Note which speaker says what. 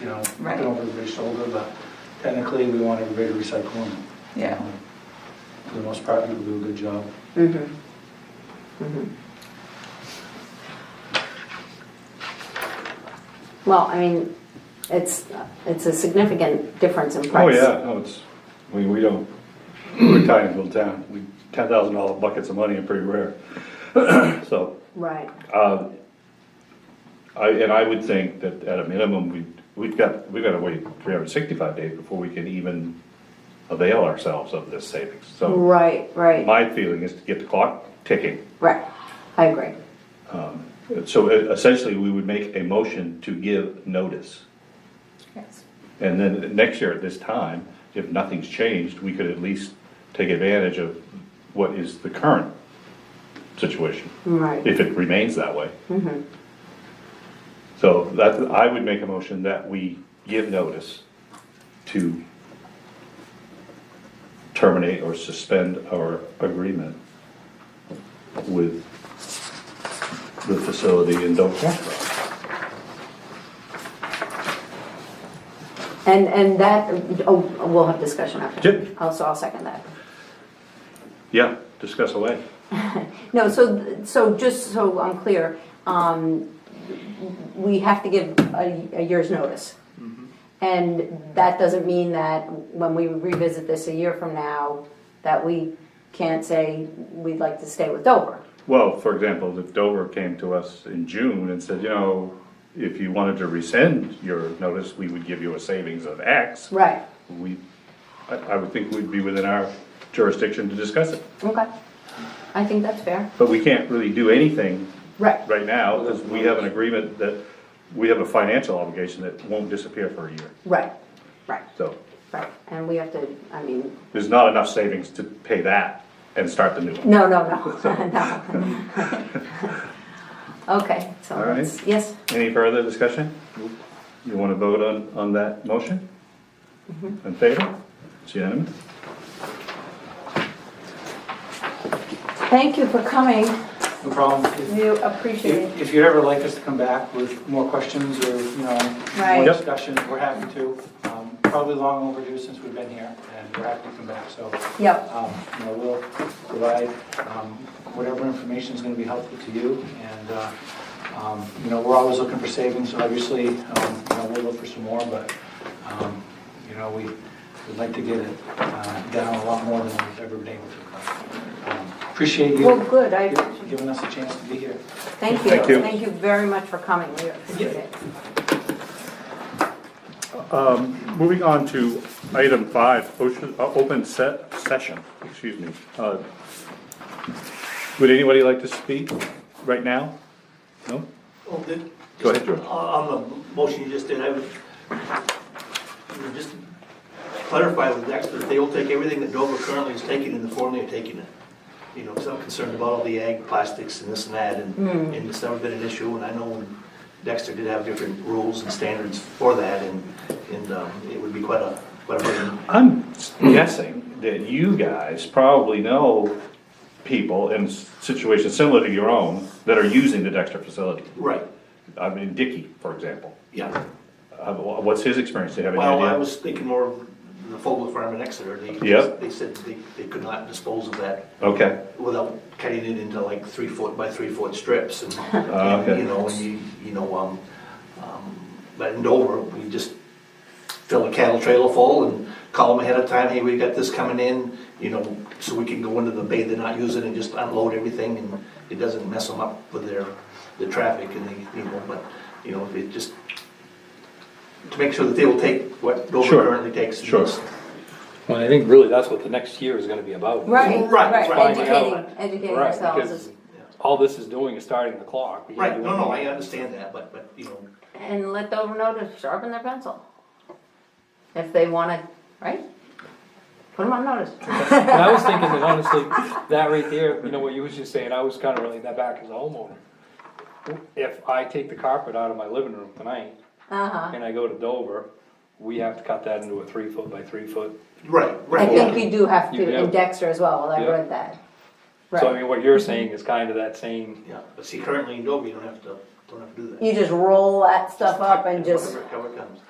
Speaker 1: you know,
Speaker 2: Right.
Speaker 1: looking over everybody's shoulder, but technically, we want everybody to recycle and.
Speaker 2: Yeah.
Speaker 1: For the most part, people do a good job.
Speaker 2: Mhm. Mhm.
Speaker 3: Well, I mean, it's, it's a significant difference in
Speaker 4: Oh,
Speaker 3: price.
Speaker 4: yeah, no, it's, I mean, we don't, we're a tiny little town, we, ten thousand dollar buckets of money are pretty rare. So,
Speaker 3: Right,
Speaker 4: um, I, and I would think that at a minimum, we, we've got, we've gotta wait three hundred and sixty-five days before we can even avail ourselves of this savings, so
Speaker 3: right, right,
Speaker 4: Oh. my feeling is to get the clock ticking.
Speaker 3: right. I agree.
Speaker 4: So uh, essentially, we would make a motion to give notice.
Speaker 2: Yes.
Speaker 4: And then next year at this time, if nothing's changed, we could at least take advantage of what is the current situation,
Speaker 3: Right,
Speaker 4: if it remains that way. So that, I would make a motion that we give notice to terminate or suspend our agreement with the facility in Dover.
Speaker 3: and, and that, oh, we'll have discussion after.
Speaker 4: Yep.
Speaker 3: I'll- So I'll second that.
Speaker 4: Yeah, discuss away.
Speaker 3: No, so, so just so I'm clear, um, we have to give a, a year's notice. And that doesn't mean that when we revisit this a year from now, that we can't say we'd like to stay with Dover.
Speaker 4: Well, for example, if Dover came to us in June and said, you know, if you wanted to rescind your notice, we would give you a savings of X.
Speaker 3: Right,
Speaker 4: We, I, I would think we'd be within our jurisdiction to discuss it,
Speaker 3: okay. I think that's fair.
Speaker 4: but we can't really do anything
Speaker 3: Right,
Speaker 4: right now, because we have an agreement that, we have a financial obligation that won't disappear for a year,
Speaker 3: right, right,
Speaker 4: so
Speaker 3: right. And we have to, I mean,
Speaker 4: there's not enough savings to pay that and start the new one.
Speaker 3: no, no, no, no. Okay, so,
Speaker 4: All right.
Speaker 3: let's- yes,
Speaker 4: Any further discussion? You want to vote on, on that motion? In favor? It's unanimous?
Speaker 3: thank you for coming.
Speaker 1: No problem. If-
Speaker 2: We appreciate
Speaker 1: If
Speaker 2: it.
Speaker 1: if you'd ever like us to come back with more questions or, you know,
Speaker 2: Right.
Speaker 1: more
Speaker 4: Yep.
Speaker 1: discussion, we're happy to. Um, Probably long overdue since we've been here, and we're happy to come back, so,
Speaker 3: Yep,
Speaker 1: um, you know, we'll provide um, whatever information is going to be helpful to you, and, uh, um, you know, we're always looking for savings, obviously, um, you know, we'll look for some more, but, um, you know, we would like to get it uh, down a lot more than we've ever been able to. Um, Appreciate
Speaker 3: well,
Speaker 1: you
Speaker 3: good, I,
Speaker 1: giving us a chance to be here.
Speaker 3: thank you,
Speaker 4: Thank you.
Speaker 3: thank you very much for coming, we appreciate it.
Speaker 4: Moving on to item five, ocean, uh, open set, session, excuse me. Uh, Would anybody like to speak right now? No?
Speaker 5: Well, the-
Speaker 4: Go ahead, George.
Speaker 5: On on the motion you just did, I would, you know, just clarify with Dexter, they will take everything that Dover currently is taking in the form they're taking it. You know, because I'm concerned about all the ag plastics and this and that, and, and it's never been an issue, and I know when Dexter did have different rules and standards for that, and, and um, it would be quite a, quite a burden.
Speaker 4: I'm guessing that you guys probably know people in situations similar to your own that are using the Dexter facility.
Speaker 5: Right,
Speaker 4: I mean, Dicky, for example.
Speaker 5: yeah.
Speaker 4: Uh, wh- What's his experience? Do you have any
Speaker 5: Well, I
Speaker 4: idea?
Speaker 5: was thinking more of the Fogle Farm in Exeter, they,
Speaker 4: Yep.
Speaker 5: they said they, they could not dispose of that
Speaker 4: Okay,
Speaker 5: without cutting it into like three foot by three foot strips and,
Speaker 4: Ah,
Speaker 5: and,
Speaker 4: okay.
Speaker 5: you know, and you, you know, um, um, but in Dover, we just fill a cattle trailer full and call them ahead of time, hey, we got this coming in, you know, so we can go into the bay they're not using and just unload everything and it doesn't mess them up with their, the traffic and they, you know, but, you know, it just, to make sure that they will take what Dover
Speaker 4: Sure.
Speaker 5: currently takes. and
Speaker 4: Sure.
Speaker 5: just-
Speaker 6: Well, I think really that's what the next year is gonna be about.
Speaker 3: Right,
Speaker 5: Right,
Speaker 3: right,
Speaker 5: right.
Speaker 3: educating, educating
Speaker 6: Right,
Speaker 3: ourselves
Speaker 6: because
Speaker 3: is-
Speaker 6: all this is doing is starting the clock. We gotta
Speaker 5: Right,
Speaker 6: do
Speaker 5: no,
Speaker 6: it.
Speaker 5: no, I understand that, but, but, you know,
Speaker 3: and let Dover know to sharpen their pencil. If they wanna, right? Put them on notice.
Speaker 6: And I was thinking that honestly, that right there, you know, what you was just saying, I was kinda relating that back as a homeowner. If I take the carpet out of my living room tonight
Speaker 3: Uh-huh,
Speaker 6: and I go to Dover, we have to cut that into a three foot by three foot.
Speaker 5: right,
Speaker 3: I
Speaker 5: right.
Speaker 3: think we do have to,
Speaker 6: Yeah.
Speaker 3: and Dexter as well, I
Speaker 6: Yeah.
Speaker 3: read that.
Speaker 6: So I
Speaker 3: Right,
Speaker 6: mean, what you're saying is kinda that same,
Speaker 5: Yeah, but see, currently in Dover, you don't have to, don't have to do that.
Speaker 3: you just roll that stuff up and just,
Speaker 5: Whatever cover comes.